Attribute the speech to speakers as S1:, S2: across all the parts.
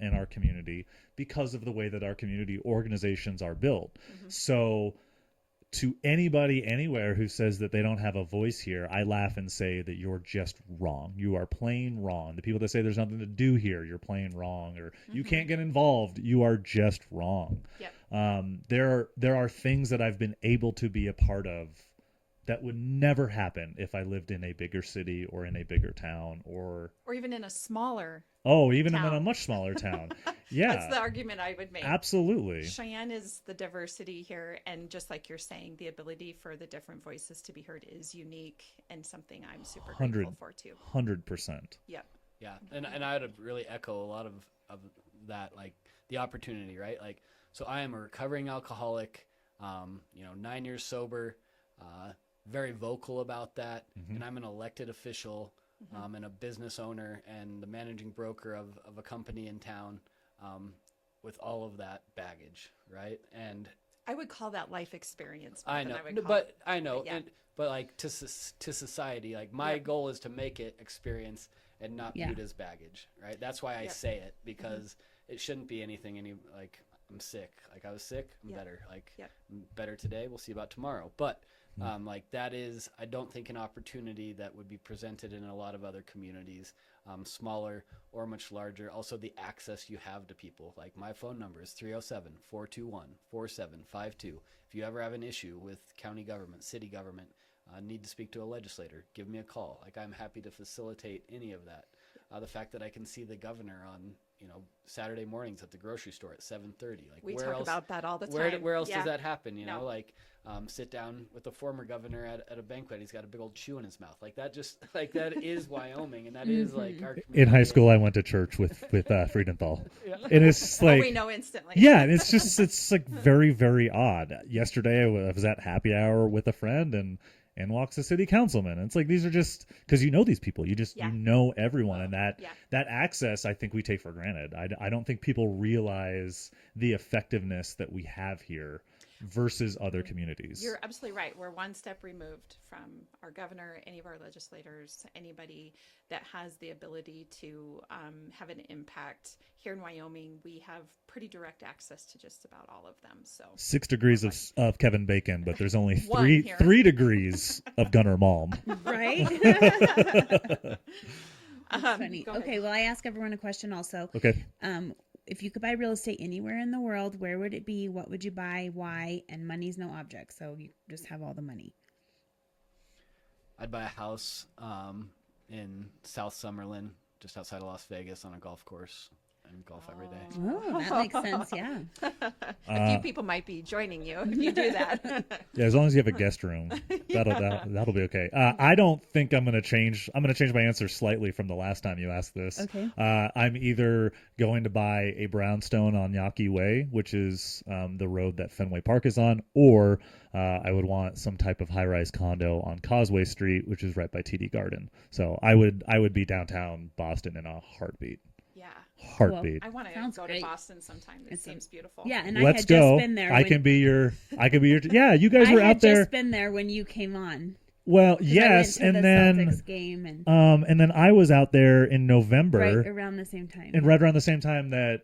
S1: in our community because of the way that our community organizations are built.
S2: Mm-hmm.
S1: So to anybody anywhere who says that they don't have a voice here, I laugh and say that you're just wrong. You are plain wrong. The people that say there's nothing to do here, you're plain wrong, or you
S2: Mhm.
S1: can't get involved, you are just wrong.
S2: Yep.
S1: Um, there are there are things that I've been able to be a part of that would never happen if I lived in a bigger city or in a bigger town or
S2: or even in a smaller.
S1: oh even in a
S2: Town.
S1: much smaller town. yeah,
S2: That's the argument I would make.
S1: absolutely.
S2: Cheyenne is the diversity here, and just like you're saying, the ability for the different voices to be heard is unique and something I'm super grateful
S1: Hundred.
S2: for too.
S1: Hundred percent.
S2: Yep.
S3: Yeah, and and I would really echo a lot of of that, like the opportunity, right? Like, so I am a recovering alcoholic, um, you know, nine years sober, uh, very vocal about that,
S1: Mhm.
S3: and I'm an elected official,
S2: Mm-hmm.
S3: um, and a business owner, and the managing broker of of a company in town, um, with all of that baggage, right? And
S2: I would call that life experience. more
S3: I
S2: than
S3: know,
S2: would
S3: No,
S2: call
S3: but
S2: it-
S3: I know,
S2: yeah.
S3: and but like to soc- to society, like my
S2: Yep.
S3: goal is to make it experience and not
S4: Yeah.
S3: viewed as baggage, right? That's why I
S2: Yep.
S3: say it
S2: Mm-hmm.
S3: because it shouldn't be anything. Any like I'm sick, like I was sick, I'm
S2: Yep.
S3: better, like
S2: Yep.
S3: I'm better today. We'll see about tomorrow, but.
S1: Mhm.
S3: Um, like that is, I don't think an opportunity that would be presented in a lot of other communities, um, smaller or much larger. Also, the access you have to people. Like my phone number is 307 421 4752. If you ever have an issue with county government, city government, uh, need to speak to a legislator, give me a call. Like I'm happy to facilitate any of that. Uh, the fact that I can see the governor on you know Saturday mornings at the grocery store at 7:30. Like
S2: we
S3: where
S2: talk
S3: else?
S2: about that all the time.
S3: where, d- where else
S2: yeah.
S3: does that happen? You know,
S2: No.
S3: like um, sit down with the former governor at, at a banquet. He's got a big old chew in his mouth. Like that just like that is Wyoming, and that
S2: Mm-hmm.
S3: is like our
S1: In high
S3: community.
S1: school, I went to church with with uh, Friedenthal,
S3: Yeah.
S1: and it's just
S2: Oh,
S1: like
S2: we know instantly.
S1: yeah, and it's just it's like very very odd. Yesterday, I wa- I was at happy hour with a friend, and and walks a city councilman. And it's like these are just because you know these people, you just
S2: Yeah.
S1: you know everyone, and that
S2: Yeah.
S1: that access I think we take for granted. I, d- I don't think people realize the effectiveness that we have here versus other communities.
S2: You're absolutely right. We're one step removed from our governor, any of our legislators, anybody that has the ability to um, have an impact. Here in Wyoming, we have pretty direct access to just about all of them. So,
S1: Six degrees of, of Kevin Bacon, but there's only
S2: One
S1: three
S2: here.
S1: three degrees of Gunnar Malm.
S4: right?
S2: Um,
S4: Funny.
S2: go ahead.
S4: Okay, well, I ask everyone a question also.
S1: Okay.
S4: Um, if you could buy real estate anywhere in the world, where would it be? What would you buy? Why? And money's no object, so you just have all the money.
S3: I'd buy a house um, in South Summerlin, just outside of Las Vegas, on a golf course and golf every day.
S4: Oh, that makes sense. Yeah.
S2: a few
S1: Uh,
S2: people might be joining you if you do that.
S1: Yeah, as long as you have a guest room, that'll that'll, that'll be okay. Uh, I don't think I'm gonna change. I'm gonna change my answer slightly from the last time you asked this.
S4: Okay.
S1: Uh, I'm either going to buy a brownstone on Yaqui Way, which is um, the road that Fenway Park is on, or uh, I would want some type of high-rise condo on Causeway Street, which is right by TD Garden. So I would I would be downtown Boston in a heartbeat.
S2: yeah.
S1: Heartbeat.
S2: I want to
S4: Sounds
S2: go to
S4: great.
S2: Boston sometime. It
S4: It's a-
S2: seems beautiful.
S4: Yeah, and I
S1: Let's
S4: had
S1: go.
S4: just been there.
S1: I
S4: when-
S1: can be your. I can be your. Yeah, you guys
S4: I
S1: were
S4: had
S1: out there.
S4: just been there when you came on. 'cause
S1: well,
S4: I
S1: yes,
S4: went to
S1: and
S4: the
S1: then.
S4: Celtics game and
S1: Um, and then I was out there in November,
S4: right around the same time.
S1: and right around the same time that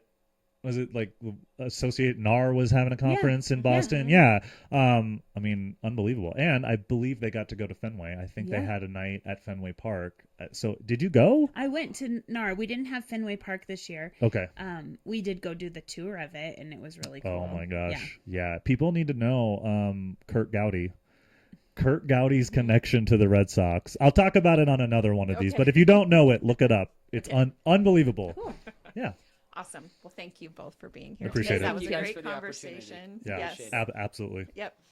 S1: was it like Associate NAR was having a conference in
S4: yeah.
S1: Boston. Yeah. Um, I mean, unbelievable. And I believe they got to go to Fenway. I think they
S4: Yeah.
S1: had a night at Fenway Park. Uh, So did you go?
S4: I went to NAR. We didn't have Fenway Park this year.
S1: Okay.
S4: Um, we did go do the tour of it, and it was really cool.
S1: Oh my
S4: Yeah.
S1: gosh. Yeah. People need to know um Kurt Gowdy. Kurt Gowdy's connection to the Red Sox. I'll talk about it on another one of these,
S2: Okay.
S1: but if you don't know it, look it up. It's
S2: Okay.
S1: un- unbelievable.
S4: Cool.
S1: Yeah.
S2: Awesome. Well, thank you both for being here.
S1: Appreciate
S2: today.
S1: it.
S2: That was
S3: Thank
S2: a
S3: you guys
S2: great
S3: for the opportunity.
S2: conversation.
S1: Yeah.
S2: Yes.
S3: Appreciate it.
S1: Ab- absolutely.
S2: Yep.